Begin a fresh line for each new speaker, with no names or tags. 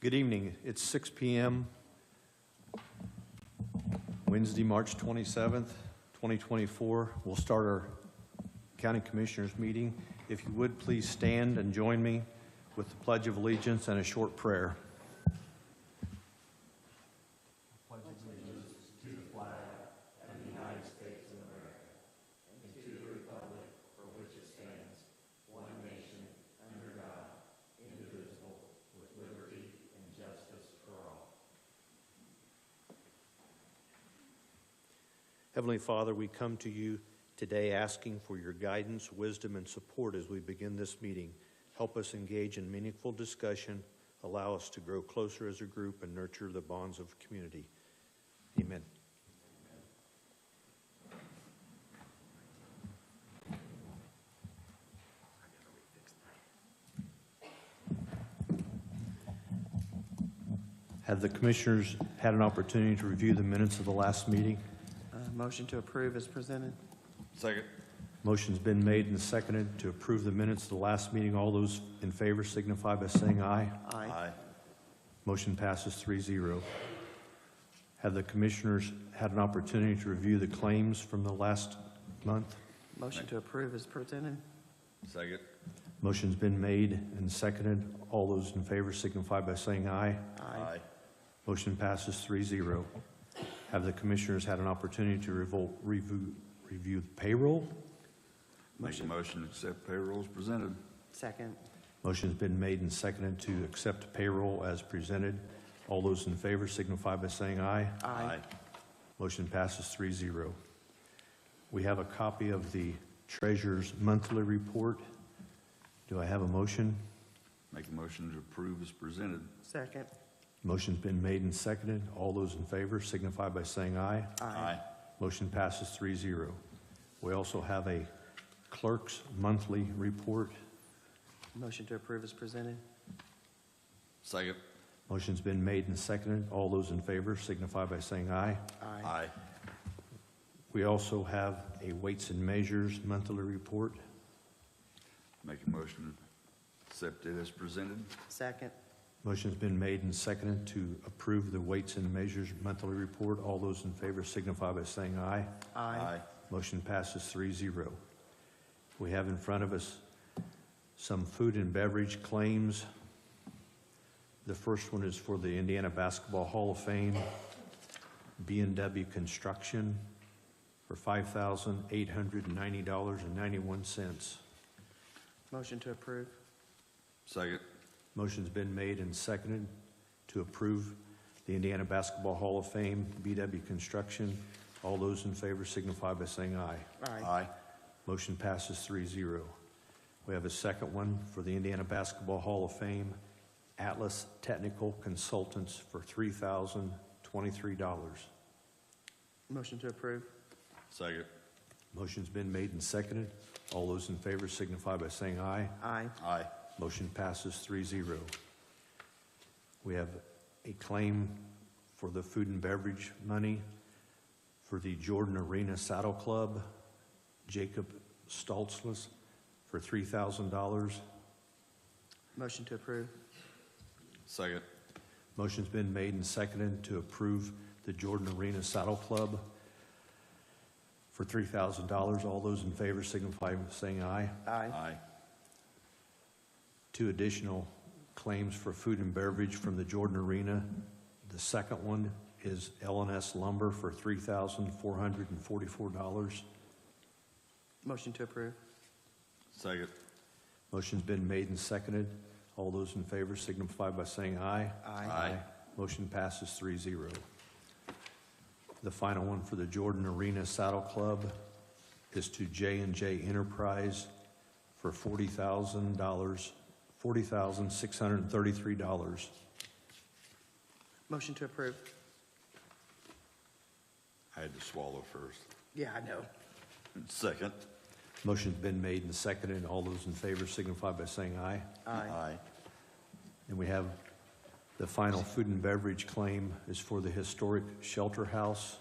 Good evening. It's 6 PM, Wednesday, March 27th, 2024. We'll start our County Commissioners meeting. If you would, please stand and join me with the Pledge of Allegiance and a short prayer. Heavenly Father, we come to you today asking for your guidance, wisdom, and support as we begin this meeting. Help us engage in meaningful discussion, allow us to grow closer as a group, and nurture the bonds of community. Amen. Have the commissioners had an opportunity to review the minutes of the last meeting?
Uh, Motion to approve is presented.
Second.
Motion's been made and seconded to approve the minutes of the last meeting. All those in favor signify by saying aye.
Aye.
Motion passes 3-0. Have the commissioners had an opportunity to review the claims from the last month?
Motion to approve is presented.
Second.
Motion's been made and seconded. All those in favor signify by saying aye. Motion passes 3-0. Have the commissioners had an opportunity to revol- review review payroll?
Make a motion to accept payrolls presented.
Second.
Motion's been made and seconded to accept payroll as presented. All those in favor signify by saying aye. Motion passes 3-0. We have a copy of the treasurer's monthly report. Do I have a motion?
Make a motion to approve as presented.
Second.
Motion's been made and seconded. All those in favor signify by saying aye. Motion passes 3-0. We also have a clerk's monthly report.
Motion to approve is presented.
Second.
Motion's been made and seconded. All those in favor signify by saying aye. We also have a Weights and Measures monthly report.
Make a motion to accept it as presented.
Second.
Motion's been made and seconded to approve the Weights and Measures monthly report. All those in favor signify by saying aye. Motion passes 3-0. We have in front of us some food and beverage claims. The first one is for the Indiana Basketball Hall of Fame, b and W Construction, for $5,890.91.
Motion to approve.
Second.
Motion's been made and seconded to approve the Indiana Basketball Hall of Fame, BW Construction. All those in favor signify by saying aye. Motion passes 3-0. We have a second one for the Indiana Basketball Hall of Fame, Atlas Technical Consultants for $3,023.
Motion to approve.
Second.
Motion's been made and seconded. All those in favor signify by saying aye.
Aye.
Aye.
Motion passes 3-0. We have a claim for the food and beverage money for the Jordan Arena Saddle Club, Jacob Stoltzlus, for $3,000.
Motion to approve.
Second.
Motion's been made and seconded to approve the Jordan Arena Saddle Club for $3,000. All those in favor signify by saying aye.
Aye.
two additional claims for food and beverage from the Jordan Arena. The second one is LNS Lumber for $3,444.
Motion to approve.
Second.
Motion's been made and seconded. All those in favor signify by saying aye. Motion passes 3-0. The final one for the Jordan Arena Saddle Club is to j and J Enterprise for $40,000, $40,633.
Motion to approve.
I had to swallow first.
Yeah, I know.
Second.
Motion's been made and seconded. All those in favor signify by saying aye. And we have the final food and beverage claim is for the historic shelter house